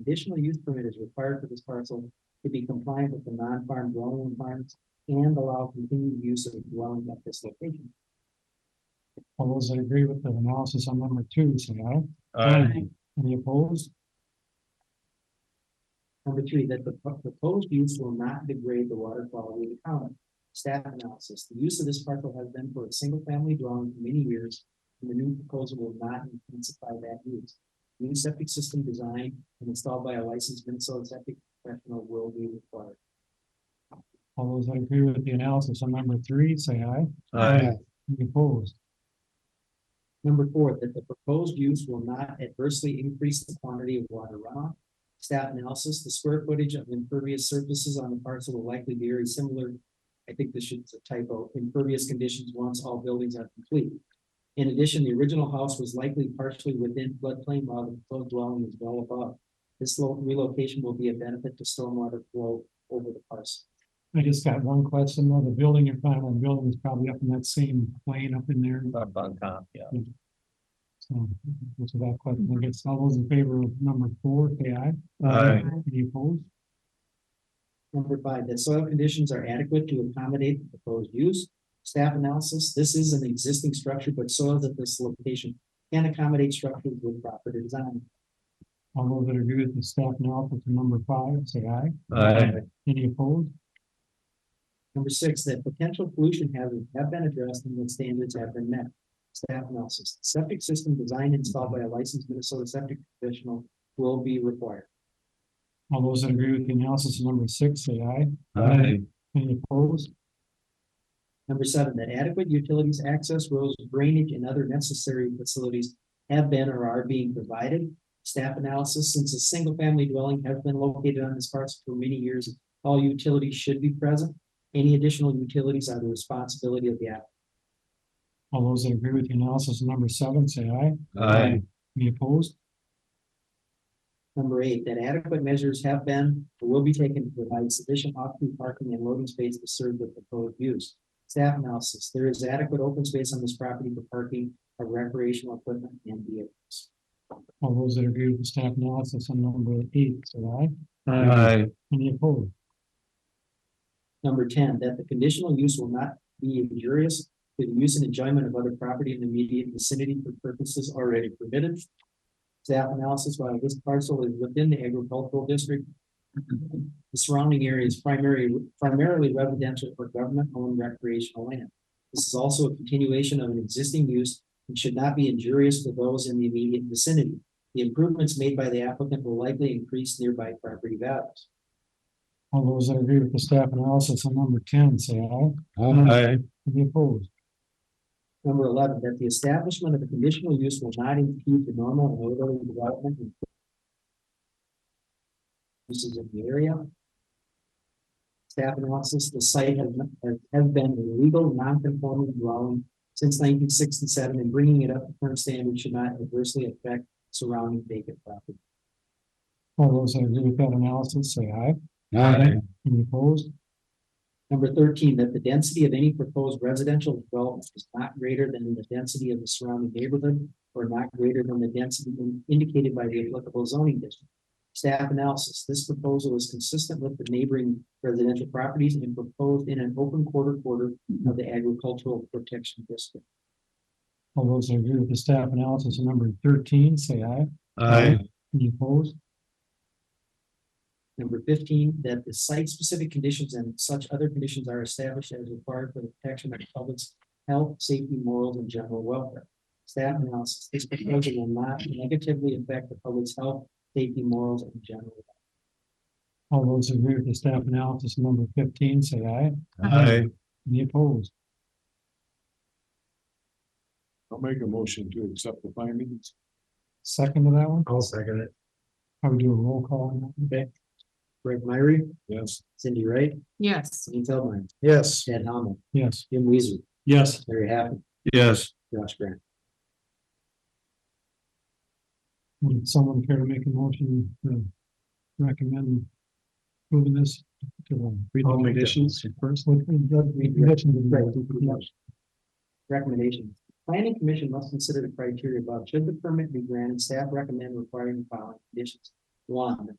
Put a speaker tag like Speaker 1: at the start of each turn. Speaker 1: conditional use permit is required for this parcel to be compliant with the non-farm dwelling requirements and allow continued use of the dwelling at this location.
Speaker 2: All those that agree with the analysis on number two, say aye. Any opposed?
Speaker 1: Number three, that the pro- proposed use will not degrade the water quality of the common. Staff analysis, the use of this parcel has been for a single family dwelling for many years, and the new proposal will not intensify that use. New septic system designed and installed by a licensed Minnesota septic professional will be required.
Speaker 2: All those that agree with the analysis on number three, say aye. Any opposed?
Speaker 1: Number four, that the proposed use will not adversely increase the quantity of water runoff. Staff analysis, the square footage of impervious surfaces on the parcel will likely be very similar. I think this should, it's a typo, impervious conditions once all buildings are complete. In addition, the original house was likely partially within floodplain while the proposed dwelling is well above. This lo- relocation will be a benefit to stormwater flow over the parcel.
Speaker 2: I just got one question, though. The building in front of the building is probably up in that same plane up in there.
Speaker 3: on top, yeah.
Speaker 2: So, that's that question. I guess all those in favor of number four, say aye. Uh,
Speaker 3: Aye.
Speaker 2: Any opposed?
Speaker 1: Number five, that soil conditions are adequate to accommodate the proposed use. Staff analysis, this is an existing structure, but soils at this location can accommodate structures with proper design.
Speaker 2: All those that agree with the staff analysis on number five, say aye. Any opposed?
Speaker 1: Number six, that potential pollution hazards have been addressed and that standards have been met. Staff analysis, septic system designed and installed by a licensed Minnesota septic professional will be required.
Speaker 2: All those that agree with the analysis on number six, say aye. Any opposed?
Speaker 1: Number seven, that adequate utilities, access roads, drainage, and other necessary facilities have been or are being provided. Staff analysis, since a single-family dwelling has been located on this parcel for many years, all utilities should be present. Any additional utilities are the responsibility of the applicant.
Speaker 2: All those that agree with the analysis on number seven, say aye.
Speaker 3: Aye.
Speaker 2: Any opposed?
Speaker 1: Number eight, that adequate measures have been or will be taken to provide sufficient off-street parking and loading space to serve the proposed use. Staff analysis, there is adequate open space on this property for parking of recreational equipment and vehicles.
Speaker 2: All those that agree with the staff analysis on number eight, say aye.
Speaker 3: Aye.
Speaker 2: Any opposed?
Speaker 1: Number ten, that the conditional use will not be injurious to the use and enjoyment of other property in the immediate vicinity for purposes already permitted. Staff analysis, while this parcel is within the agricultural district, the surrounding area is primary, primarily residential or government-owned recreational land. This is also a continuation of an existing use and should not be injurious to those in the immediate vicinity. The improvements made by the applicant will likely increase nearby property values.
Speaker 2: All those that agree with the staff analysis on number ten, say aye.
Speaker 3: Aye.
Speaker 2: Any opposed?
Speaker 1: Number eleven, that the establishment of a conditional use will not impede the normal and orderly development. and Uses in the area. Staff analysis, the site has, has- has been a legal non-conforming dwelling since nineteen sixty-seven, and bringing it up to current standards should not adversely affect surrounding vacant property.
Speaker 2: All those that agree with that analysis, say aye. Any opposed?
Speaker 1: Number thirteen, that the density of any proposed residential development is not greater than the density of the surrounding neighborhood or not greater than the density in- indicated by the applicable zoning district. Staff analysis, this proposal is consistent with the neighboring residential properties and proposed in an open quarter quarter of the agricultural protection district.
Speaker 2: All those that agree with the staff analysis on number thirteen, say aye.
Speaker 3: Aye.
Speaker 2: Any opposed?
Speaker 1: Number fifteen, that the site-specific conditions and such other conditions are established as required for the protection of the public's health, safety, morals, and general welfare. Staff analysis, this proposal will not negatively affect the public's health, safety, morals, and general. welfare.
Speaker 2: All those that agree with the staff analysis on number fifteen, say aye.
Speaker 3: Aye.
Speaker 2: Any opposed?
Speaker 4: I'll make a motion to accept the findings.
Speaker 2: Second to that one?
Speaker 4: I'll second it.
Speaker 2: I would do a roll call on that. one.
Speaker 1: Greg Myrie,
Speaker 4: Yes.
Speaker 1: Cindy Wright,
Speaker 5: Yes,
Speaker 1: Dean Feldmeyer,
Speaker 4: Yes.
Speaker 1: Chad Hellman,
Speaker 2: Yes.
Speaker 1: Jim Weezer,
Speaker 2: Yes.
Speaker 1: Larry Haffner,
Speaker 3: Yes.
Speaker 1: Josh Grant.
Speaker 2: Would someone care to make a motion to recommend moving this to the read the
Speaker 4: I'll make that
Speaker 2: conditions first? Let's read the- read the conditions.
Speaker 1: Recommendations. Planning Commission must consider the criteria above. Should the permit be granted, staff recommend requiring the following conditions. One, the